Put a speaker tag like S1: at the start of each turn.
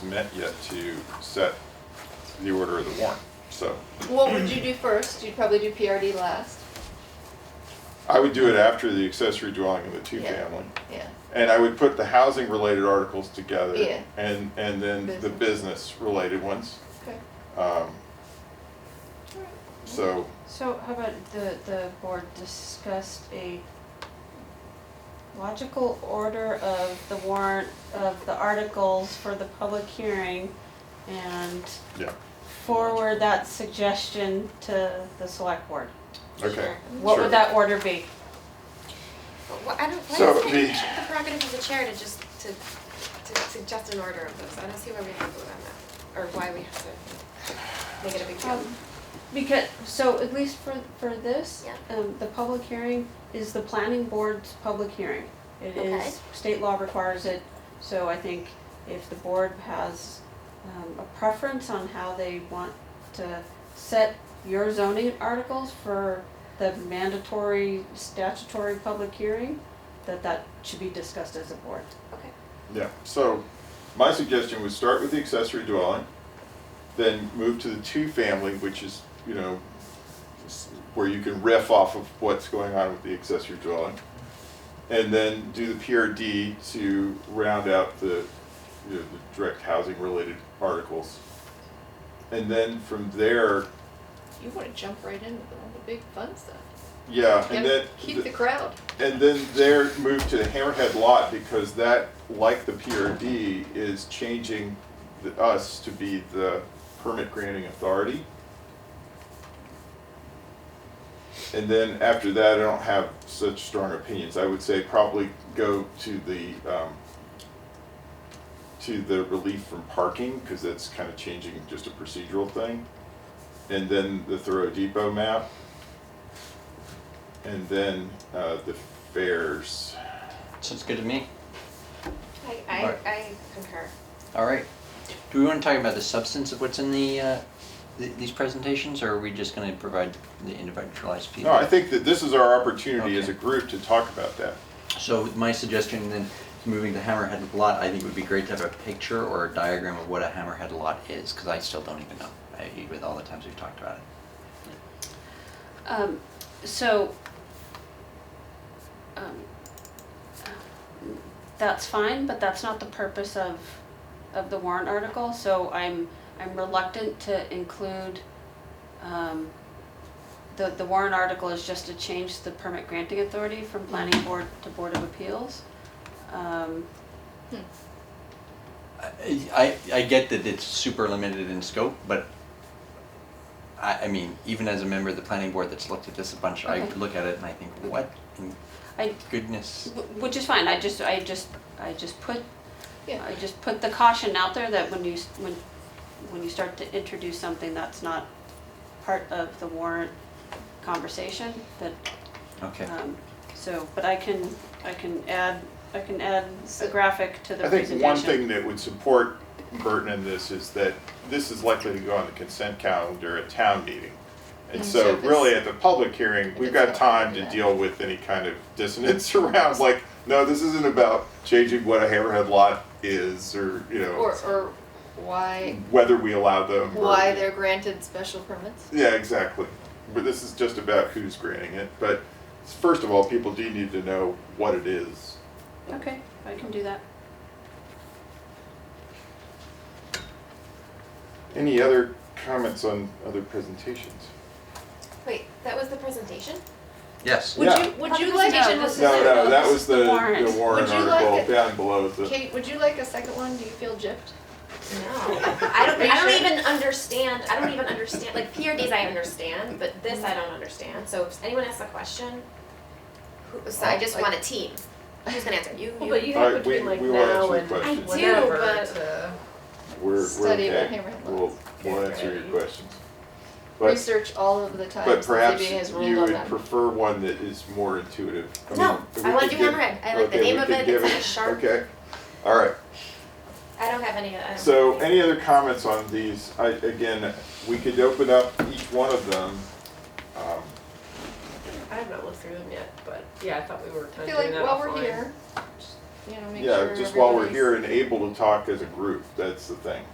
S1: met yet to set the order of the warrant. So
S2: What would you do first? You'd probably do PRD last.
S1: I would do it after the accessory dwelling and the
S2: Yeah.
S1: two-family.
S2: Yeah.
S1: And I would put the housing-related articles together.
S2: Yeah.
S1: And, and then the
S2: Business.
S1: business-related ones.
S2: Okay.
S1: Um, So,
S3: So how about the, the board discussed a logical order of the warrant, of the articles for the public hearing and
S1: yeah,
S3: forward that suggestion to the select board?
S1: okay.
S3: What
S1: Sure.
S3: would that order be?
S4: But wh- I don't, why
S1: So
S4: isn't
S1: the-
S4: it the prerogative of the chair to just, to, to suggest an order of those? I don't see why we have to vote on that, or why we have to make it a big deal.
S3: Um, Because, so at least for, for this,
S4: Yeah.
S3: um, the public hearing is the planning board's public hearing. It
S4: Okay.
S3: is, state law requires it, so I think if the board has, um, a preference on how they want to set your zoning articles for the mandatory statutory public hearing, that that should be discussed as a board.
S4: Okay,
S1: Yeah, so my suggestion was start with the accessory dwelling, then move to the two-family, which is, you know, s- where you can riff off of what's going on with the accessory dwelling. And then do the PRD to round out the, you know, the direct housing-related articles. And then from there,
S2: You want to jump right into the, all the big fun stuff.
S1: yeah,
S2: Yeah,
S1: and then.
S2: keep the crowd.
S1: And then there moved to the Hammerhead Lot because that, like the PRD, is changing the, us to be the permit granting authority. And then after that, I don't have such strong opinions. I would say probably go to the, um, to the relief from parking, because that's kind of changing just a procedural thing. And then the Thoreau Depot map. And then, uh, the fairs.
S5: Sounds good to me.
S4: I, I,
S5: Right.
S4: I concur.
S5: All right. Do we want to talk about the substance of what's in the, uh, th- these presentations, or are we just going to provide the individualized
S1: No,
S5: feedback?
S1: I think that this is our opportunity as a
S5: Okay.
S1: group to talk about that.
S5: So my suggestion then, is moving to hammerhead lot, I think it would be great to have a picture or a diagram of what a hammerhead lot is, because I still don't even know, I- with all the times we've talked about it.
S3: Um, so, um, that's fine, but that's not the purpose of, of the warrant article, so I'm, I'm reluctant to include, um, the, the warrant article is just to change the permit granting authority from planning board to board of appeals. Um,
S5: I, I I get that it's super limited in scope, but I, I mean, even as a member of the planning board that's looked at this a bunch, I
S3: Okay.
S5: look at it and I think, what in
S3: I,
S5: goodness?
S3: wh- which is fine, I just, I just, I just put
S2: Yeah.
S3: I just put the caution out there that when you, s- when, when you start to introduce something that's not part of the warrant conversation, that,
S5: Okay.
S3: um, so, but I can, I can add, I can add a graphic to the
S1: I think
S3: presentation.
S1: one thing that would support Burton in this is that this is likely to go on the consent calendar at town meeting. And
S2: Mhm. So
S1: so
S2: if
S1: really at
S2: it's-
S1: the public hearing,
S2: if
S1: we've
S2: it's
S1: got
S2: not
S1: time to
S2: gonna do that.
S1: deal with any kind of dissonance around, like, no, this isn't about changing what a hammerhead lot is or, you
S2: Or,
S1: know,
S2: or why,
S1: whether we allow them. or-
S2: why they're granted special permits?
S1: Yeah, exactly. But this is just about who's granting it. But first of all, people do need to know what it is.
S3: Okay, I can do that.
S1: Any other comments on other presentations?
S4: Wait, that was the presentation?
S5: Yes.
S2: Would
S1: Yeah.
S2: you, would you
S3: No,
S2: like,
S3: this is-
S1: No, no, that
S3: this
S1: was
S3: is
S1: the,
S3: the warrant.
S1: the warrant
S2: Would you like
S1: article
S2: it?
S1: down below. is the-
S2: Kate, would you like a second one? Do you feel gypped?
S4: No, I don't,
S2: Are you
S4: I don't
S2: sure?
S4: even understand, I don't even understand, like PRDs I understand, but this I don't understand, so if anyone asks a question, who, so I just want a team, who's gonna answer, you,
S6: Well,
S4: you,
S6: but you
S1: All
S6: have
S1: right,
S6: between
S1: we-
S6: like
S1: we will
S6: now
S1: answer
S6: and
S1: questions. I do,
S6: whenever
S4: but-
S6: to.
S1: We're, we're
S2: Study about
S1: okay.
S2: hammerhead
S1: We'll,
S2: lots.
S1: we'll
S6: Okay.
S1: answer your questions. But,
S2: Research all of the
S1: but
S2: times the
S1: perhaps
S2: ZBA has
S1: you
S2: ruled on
S1: would
S2: that.
S1: prefer one that is more intuitive. I mean,
S4: No,
S1: we
S4: I wanna
S1: could
S4: do
S1: give-
S4: hammerhead. I like the
S1: okay,
S4: name
S1: we
S4: of
S1: could
S4: it.
S1: give
S4: It's like a sharp-
S1: Okay, all right.
S4: I don't have any, I don't.
S1: So, any other comments on these? I, again, we could open up each one of them. Um,
S6: I have not looked through them yet, but yeah, I thought we were
S2: I
S6: kind of
S2: feel
S6: doing
S2: like
S6: that
S2: while we're
S6: offline.
S2: here, you know, make sure.
S1: Yeah, just while we're
S2: everybody's-
S1: here and able to talk as a group, that's the thing.